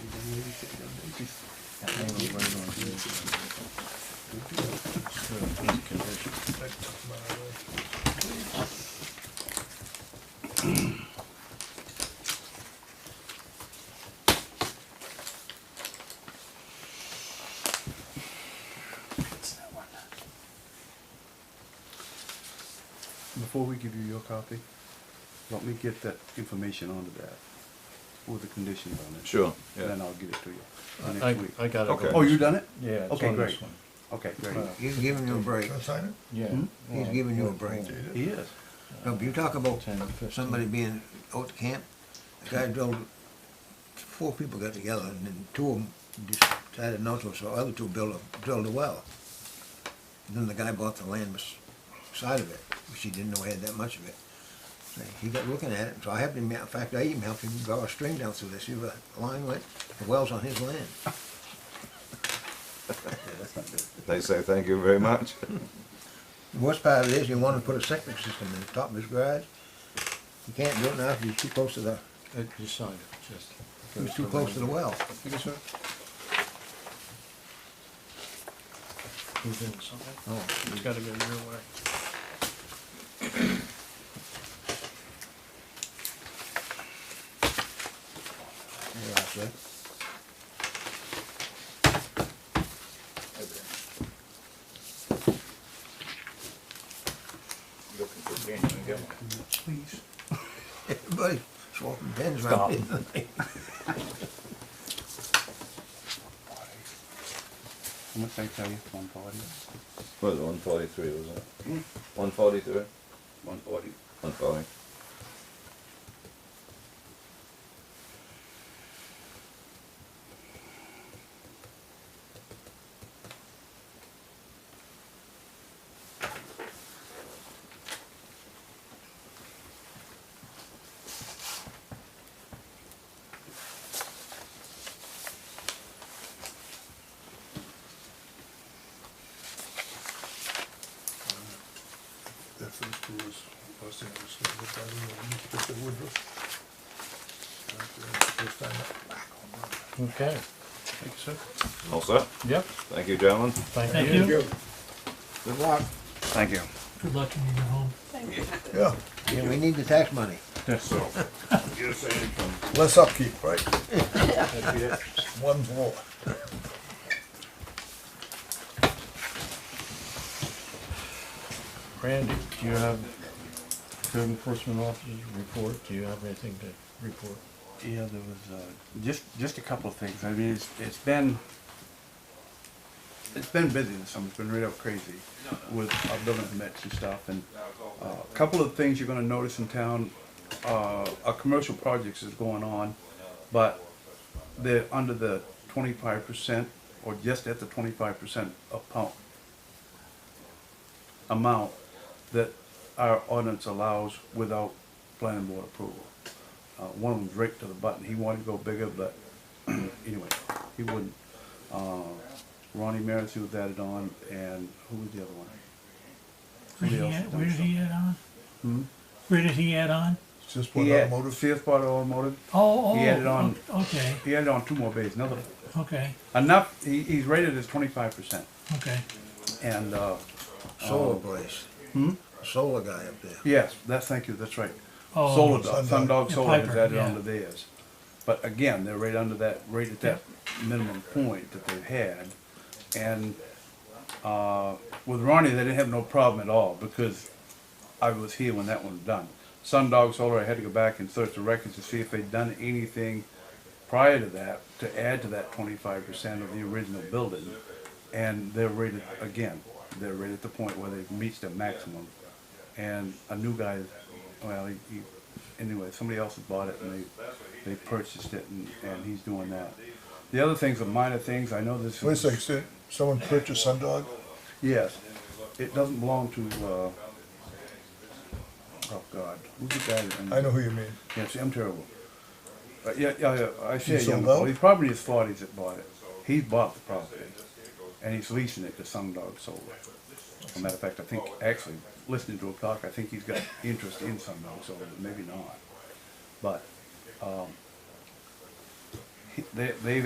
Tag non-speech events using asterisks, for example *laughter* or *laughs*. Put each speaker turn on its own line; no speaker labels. before we give you your copy, let me get that information onto that, with the conditions on it.
Sure,
And
yeah.
then I'll give it to you
I,
next week.
I got it.
Okay.
Oh, you done it?
Yeah. it's
Okay,
on this
great.
one.
Okay, great.
Wow.
He's giving you a break.
Can I sign it?
Yeah.
Hmm?
He's
Well,
giving you a break.
He is.
No, but you talk about
10, 15.
somebody being out to camp, the guy drove, four people got together and then two of them decided not to, so the other two built a, drilled a well. And then the guy bought the land beside of it, which he didn't know he had that much of it. So he got looking at it, so I helped him, out. in fact, I even helped him draw a string down through this, see where the line went, the well's on his land.
Yeah, that's not good.
They say thank you very much.
The worst part of it is, you wanna put a septic system in the top of his garage, you can't do it now, because you're too close to the,
Uh, You signed it, just.
you're too close to the well.
Thank you, sir. Move in something.
Oh.
It's gotta go your way.
Yeah, that's it. Please. Everybody swapping pens around.
How much did I tell you? One forty?
*laughs* What was it, one forty-three, was it? One forty-three?
One forty.
One forty.
That first two was, was the other stuff, but I didn't know, you took the Woodruff. That's the First time back on that.
Okay. Thank you, sir.
All set?
Yep,
Thank you, gentlemen.
thank you.
Good luck.
Thank you.
Good luck when you get home.
Yeah,
Yeah, we need the tax money.
less upkeep, right? One more.
Randy, do you have code enforcement officers report? Do you have anything to report?
Yeah, there was, uh, just, just a couple of things, I mean, it's, it's been, it's been busy this summer, it's been right up crazy with our building permits and stuff, and, uh, a couple of things you're gonna notice in town, uh, our commercial projects is going on, but they're under the twenty-five percent, or just at the twenty-five percent of pump amount that our ordinance allows without planning board approval. Uh, one of them's right to the button. He wanted to go bigger, but *clears throat* anyway, he wouldn't. Uh, Ronnie Maris, who was added on, and who was the other one?
Where did
Somebody
he
else
add,
has
where did
done
he add on?
Hmm?
Where did he add on?
It's just
He
one
had-
automotive.
Fifth Part Automotive.
Oh, oh.
He added on-
o- Okay,
He added on two more bays, another,
okay,
enough, he, he's rated as twenty-five percent.
okay.
And, uh,
Solar place.
hmm?
Solar guy up there.
Yes, that's, thank you, that's right.
Oh,
Solar Dog,
Sundog.
Sundog
Yeah,
Solar is
Piper,
added
yeah.
onto theirs. But again, they're right under that, right at that minimum point that they've had. And, uh, with Ronnie, they didn't have no problem at all because I was here when that one was done. Sundog Solar, I had to go back and search the records to see if they'd done anything prior to that to add to that twenty-five percent of the original building. And they're rated, again, they're right at the point where they've reached their maximum. And a new guy, well, he, he, anyway, somebody else has bought it and they, they purchased it and, and he's doing that. The other things are minor things, I know this is.
Wait a second, so eh? someone purchased Sundog?
Yes, it doesn't belong to, uh, oh God, who's the guy? that-
I know who you mean.
Yeah, see, I'm terrible. But yeah, yeah, yeah, I see a
He's
young
sold out?
fellow, he's probably in his forties that bought it. He's bought the property, and he's leasing it to Sundog Solar. As a matter of fact, I think, actually, listening to him talk, I think he's got interest in Sundog Solar, but maybe not. But, um, he- they, they